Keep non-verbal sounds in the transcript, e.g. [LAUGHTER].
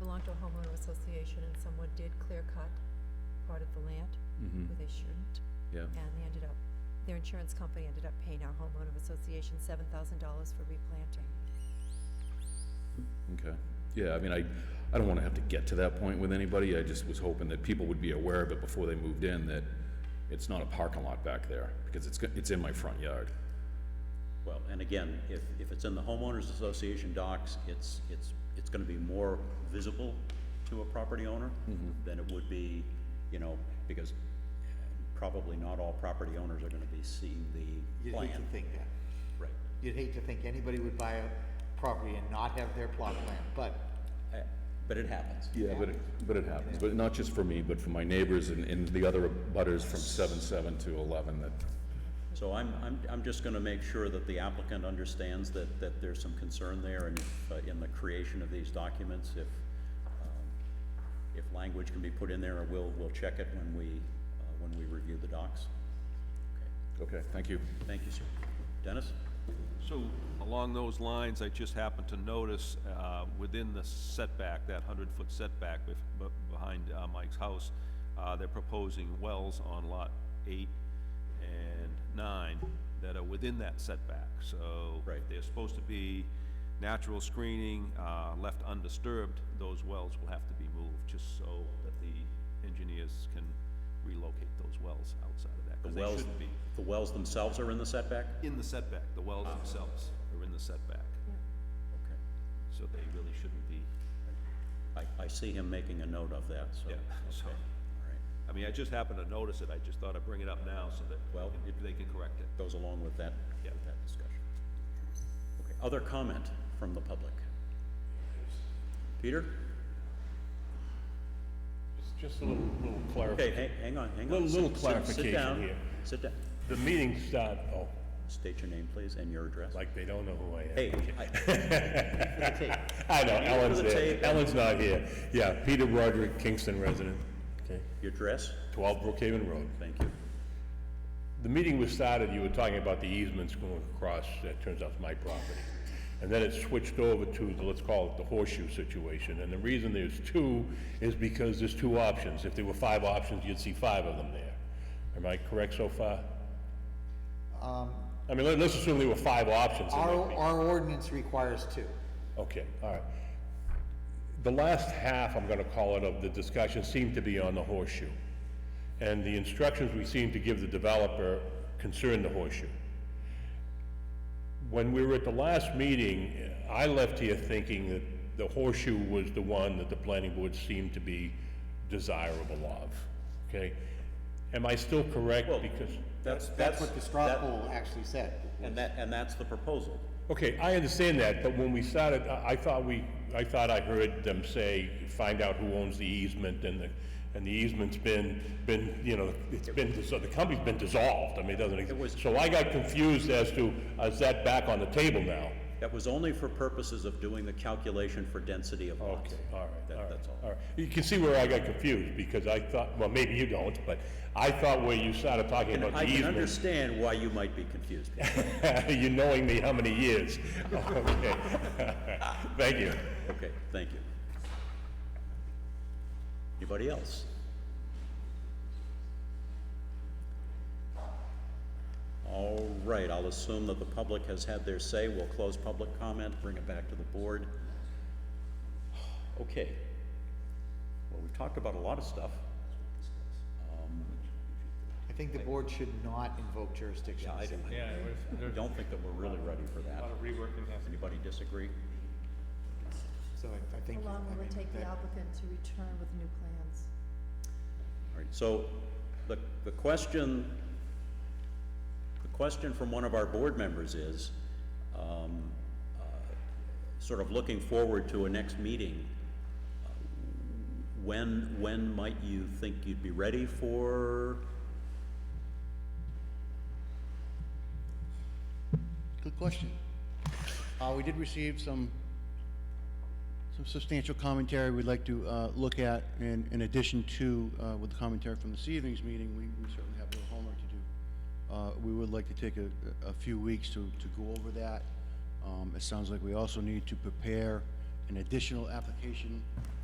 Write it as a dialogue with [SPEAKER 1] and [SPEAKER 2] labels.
[SPEAKER 1] belong to a homeowner association and someone did clear cut part of the land
[SPEAKER 2] Mm-hmm,
[SPEAKER 1] where they shouldn't.
[SPEAKER 2] yeah,
[SPEAKER 1] And they ended up, their insurance company ended up paying our homeowner association seven thousand dollars for replanting.
[SPEAKER 2] okay. Yeah, I mean, I, I don't wanna have to get to that point with anybody, I just was hoping that people would be aware of it before they moved in, that it's not a parking lot back there, because it's, go- it's in my front yard.
[SPEAKER 3] Well, and again, if, if it's in the homeowners association docs, it's, it's, it's gonna be more visible to a property owner
[SPEAKER 4] Mm-hmm.
[SPEAKER 3] than it would be, you know, because probably not all property owners are gonna be seeing the
[SPEAKER 4] You'd
[SPEAKER 3] plan.
[SPEAKER 4] hate to think that.
[SPEAKER 3] Right.
[SPEAKER 4] You'd hate to think anybody would buy a property and not have their plot plan, but
[SPEAKER 3] Uh, But it happens.
[SPEAKER 2] Yeah, but it, but it happens, but not just for me, but for my neighbors and, and the other butters from seven, seven to eleven that,
[SPEAKER 3] So I'm, I'm, I'm just gonna make sure that the applicant understands that, that there's some concern there and if, uh, in the creation of these documents, if, um, if language can be put in there, we'll, we'll check it when we, uh, when we review the docs.
[SPEAKER 2] okay, thank you.
[SPEAKER 3] Thank you, sir. Dennis?
[SPEAKER 5] So along those lines, I just happened to notice, uh, within the setback, that hundred-foot setback bef- be- behind uh, Mike's house, uh, they're proposing wells on lot eight and nine that are within that setback, so.
[SPEAKER 3] Right.
[SPEAKER 5] They're supposed to be natural screening, uh, left undisturbed, those wells will have to be moved, just so that the engineers can relocate those wells outside of that,
[SPEAKER 3] The
[SPEAKER 5] because they
[SPEAKER 3] wells,
[SPEAKER 5] shouldn't be
[SPEAKER 3] the wells themselves are in the setback?
[SPEAKER 5] in the setback, the wells themselves are in the setback,
[SPEAKER 3] Okay.
[SPEAKER 5] so they really shouldn't be,
[SPEAKER 3] I, I see him making a note of that, so.
[SPEAKER 5] yeah, so.
[SPEAKER 3] All right.
[SPEAKER 5] I mean, I just happened to notice it, I just thought I'd bring it up now so that,
[SPEAKER 3] Well-
[SPEAKER 5] well, if they can correct it.
[SPEAKER 3] Goes along with that,
[SPEAKER 5] Yeah.
[SPEAKER 3] with that discussion. Okay, other comment from the public? Peter?
[SPEAKER 6] Just- Just a little, little
[SPEAKER 3] Okay,
[SPEAKER 6] clarification.
[SPEAKER 3] hang, hang on, hang on.
[SPEAKER 6] Little- little
[SPEAKER 3] Sit- sit- Sit
[SPEAKER 6] clarification
[SPEAKER 3] down,
[SPEAKER 6] here.
[SPEAKER 3] sit down.
[SPEAKER 6] The meetings start, oh,
[SPEAKER 3] State your name, please, and your address.
[SPEAKER 6] like they don't know who I am.
[SPEAKER 3] Hey, I-
[SPEAKER 6] [LAUGHS] I know,
[SPEAKER 3] for
[SPEAKER 6] Ellen's
[SPEAKER 3] the
[SPEAKER 6] there.
[SPEAKER 3] tape.
[SPEAKER 6] Ellen's not here. Yeah, Peter Broderick, Kingston resident, okay,
[SPEAKER 3] your address?
[SPEAKER 6] twelve Brookhaven Road.
[SPEAKER 3] Thank you.
[SPEAKER 6] The meeting was started, you were talking about the easements going across, that turns out is my property. And then it switched over to, the let's call it the horseshoe situation, and the reason there's two is because there's two options. If there were five options, you'd see five of them there. Am I correct so far? I mean, let- let's assume there were five options. and
[SPEAKER 4] our,
[SPEAKER 6] there'd be-
[SPEAKER 4] our ordinance requires two.
[SPEAKER 6] Okay, all right. The last half, I'm gonna call it, of the discussion seemed to be on the horseshoe. And the instructions we seemed to give the developer concerned the horseshoe. When we were at the last meeting, I left here thinking that the horseshoe was the one that the planning board seemed to be desirable of, okay? Am I still correct? Because,
[SPEAKER 3] That's,
[SPEAKER 4] That's what the straw
[SPEAKER 3] that-
[SPEAKER 4] poll actually said.
[SPEAKER 3] And that, and that's the proposal.
[SPEAKER 6] okay, I understand that, but when we started, I, I thought we, I thought I heard them say, find out who owns the easement and the, and the easement's been, been, you know, it's been, dis- the company's been dissolved, I mean, it doesn't
[SPEAKER 3] was-
[SPEAKER 6] exist. So I got confused as to, is that back on the table now?
[SPEAKER 3] That was only for purposes of doing the calculation for density of lots.
[SPEAKER 6] Okay, Uh, all
[SPEAKER 3] That-
[SPEAKER 6] right, all right,
[SPEAKER 3] That's all.
[SPEAKER 6] all right. You can see where I got confused, because I thought, well, maybe you don't, but I thought where you started talking
[SPEAKER 3] And
[SPEAKER 6] about the
[SPEAKER 3] I can
[SPEAKER 6] easement,
[SPEAKER 3] understand why you might be confused.
[SPEAKER 6] [LAUGHS] you knowing me how many years. [LAUGHS] Okay, thank you.
[SPEAKER 3] Okay, thank you. Anybody else? All right, I'll assume that the public has had their say. We'll close public comment, bring it back to the board. [SIGHS] Okay. Well, we've talked about a lot of stuff.
[SPEAKER 4] I think the board should not invoke jurisdiction.
[SPEAKER 3] I don't, I
[SPEAKER 7] Yeah, there's, there's
[SPEAKER 3] don't think that we're really ready for
[SPEAKER 7] a
[SPEAKER 3] that.
[SPEAKER 7] lot of rework that has to be
[SPEAKER 3] Anybody disagree?
[SPEAKER 4] So I, I think.
[SPEAKER 8] How long
[SPEAKER 4] I
[SPEAKER 8] will
[SPEAKER 4] mean,
[SPEAKER 8] it take the
[SPEAKER 4] that-
[SPEAKER 8] applicant to return with new plans?
[SPEAKER 3] All right, so the, the question, the question from one of our board members is, um, uh, sort of looking forward to a next meeting, uh, when, when might you think you'd be ready for?
[SPEAKER 9] Good question. Uh, we did receive some, some substantial commentary we'd like to, uh, look at, and in addition to, uh, with the commentary from this evening's meeting, we, we certainly have a little homework to do. Uh, we would like to take a, a few weeks to, to go over that. Um, it sounds like we also need to prepare an additional application